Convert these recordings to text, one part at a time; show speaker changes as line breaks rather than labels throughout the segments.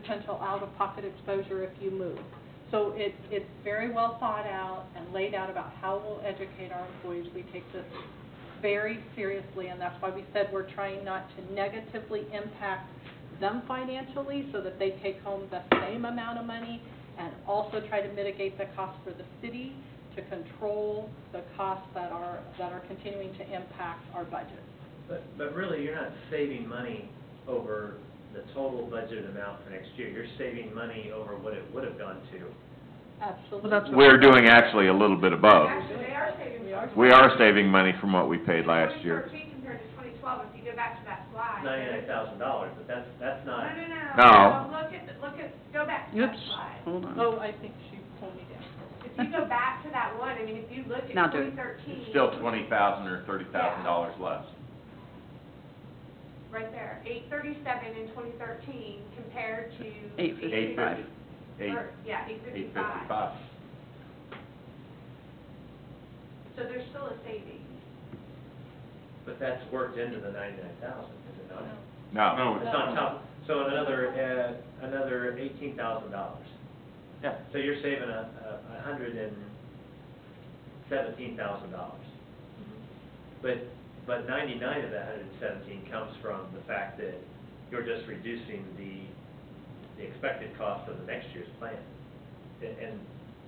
potential out-of-pocket exposure if you move. So it, it's very well thought out and laid out about how we'll educate our employees. We take this very seriously, and that's why we said we're trying not to negatively impact them financially so that they take home the same amount of money and also try to mitigate the cost for the city to control the costs that are, that are continuing to impact our budget.
But, but really, you're not saving money over the total budgeted amount for next year. You're saving money over what it would have gone to.
Absolutely.
Well, that's what-
We're doing actually a little bit above.
Actually, they are saving.
We are-
Oh. We are saving money from what we paid last year.
2013 compared to 2012, if you go back to that slide.
Ninety-nine thousand dollars, but that's, that's
No,
not,
no, no.
No.
Look at, the- look at, go back to that
Oops,
slide.
hold on.
Oh, I think she pulled me down.
If you go back to that one, I mean, if you look at
Now do it.
2013.
twenty thousand or thirty
$30,000
less.
Right there, 837 in 2013 compared to.
Eight fifty. Eight fifty.
or- Yeah, 855. So there's still a savings.
but that's worked into the ninety-nine thousand, is it not?
No.
It's on top, so another, uh, another eighteen thousand dollars.
Yeah.
So you're saving a, a- a hundred and seventeen thousand dollars. But, but ninety-nine of that hundred and seventeen comes from the fact that you're just reducing the, the expected cost of the next year's plan. And- And,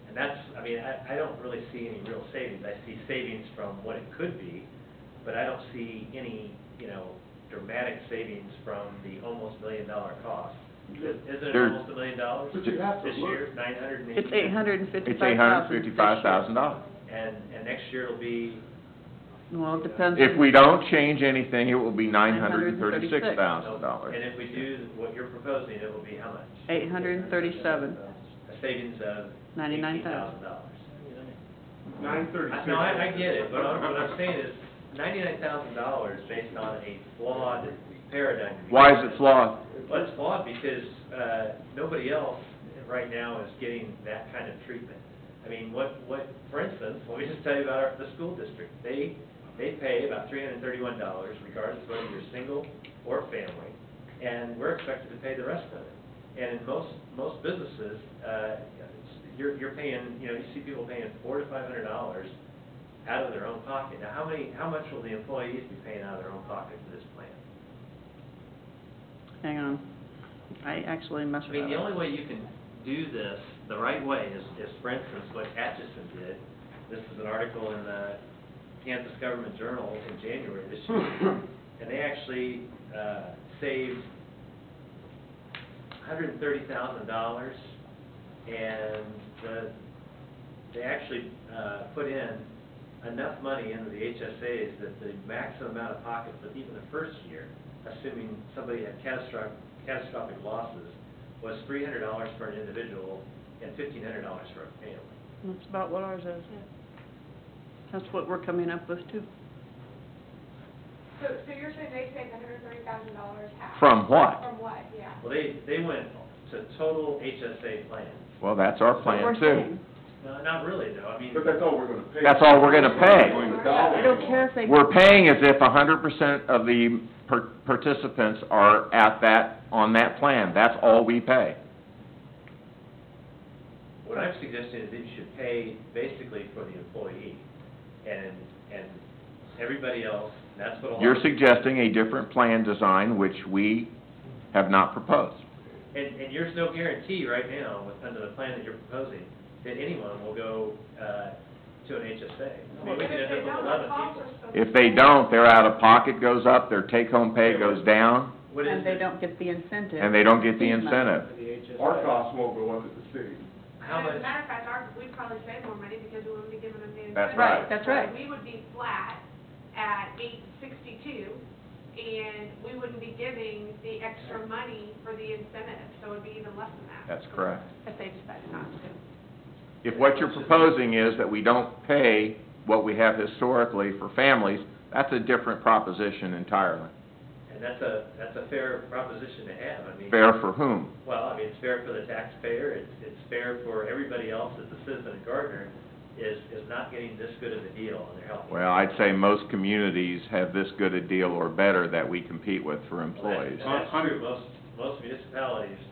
and that's, I mean, I, I don't really see any real savings. I see savings from what it could be, but I don't see any, you know, dramatic savings from the almost million-dollar cost. Is is it
There's-
almost a million dollars?
But you have to
This
look.
year, nine hundred and eighty.
It's eight hundred and
It's
fifty-five
eight
thousand.
hundred fifty-five thousand dollars.
And, and next year it'll be,
Well, it depends.
If
on-
we don't change anything, it will be nine hundred and thirty-six thousand dollars.
and if we do what you're proposing, it will be how much?
837.
A savings of eighteen
$99,000.
thousand dollars.
Nine thirty-six.
No, I, I get it, but I'm- what I'm saying is ninety-nine thousand dollars based on a flawed paradigm.
Why is it flawed?
Well, it's flawed because, uh, nobody else right now is getting that kind of treatment. I mean, what, what, for instance, let me just tell you about our, the school district. They, they pay about three hundred and thirty-one dollars regardless of whether you're single or family, and we're expected to pay the rest of it. And in most, most businesses, uh, you're, you're paying, you know, you see people paying four to five hundred dollars out of their own pocket. Now, how many, how much will the employees be paying out of their own pocket for this plan?
Hang on. I actually messed
I
that
mean, the
up.
only way you can do this the right way is, is for instance, what Atchison did. This is an article in the Kansas Government Journal in January this year. And they actually, uh, saved hundred and thirty thousand dollars. And the, they actually, uh, put in enough money into the HSAs that the maximum amount of pocket for even the first year, assuming somebody had catastrophic, catastrophic losses, was three hundred dollars for an individual and fifteen hundred dollars for a family.
That's about what ours is. That's what we're coming up with too.
So, so you're saying they saved $130,000 half?
From what?
From what, yeah.
Well, they, they went to total HSA plans.
Well, that's our
We're
plan too.
saying,
No, not really, though, I mean,
But that's all we're gonna pay.
That's all we're gonna pay.
I don't care if they.
We're paying as if a hundred percent of the par- participants are at that, on that plan. That's all we pay.
what I'm suggesting is that you should pay basically for the employee and, and everybody else, and that's what a lot.
You're suggesting a different plan design, which we have not proposed.
And, and there's no guarantee right now, with, under the plan that you're proposing, that anyone will go, uh, to an HSA. I mean, we could end up with eleven people.
If they don't, their out-of-pocket goes up, their take-home pay goes down,
What is
And they
it?
don't get the incentive.
and they don't get the incentive.
Our costs won't go up at the city.
How
As a
much,
matter of fact, our, we'd probably save more money because we wouldn't be giving them the.
That's
incentive.
right.
Right, that's right.
So We would be flat at eight sixty-two, and we wouldn't be giving the extra money for the incentive, so it'd be even less than that.
That's correct.
If they decide not to.
If what you're proposing is that we don't pay what we have historically for families, that's a different proposition entirely.
and that's a, that's a fair proposition to have, I mean.
Fair for whom?
Well, I mean, it's fair for the taxpayer, it's, it's fair for everybody else that's a citizen of Gardner, is, is not getting this good of a deal on their health.
Well, I'd say most communities have this good a deal or better that we compete with for
Well, that's-
employees.
That's true, most, most municipalities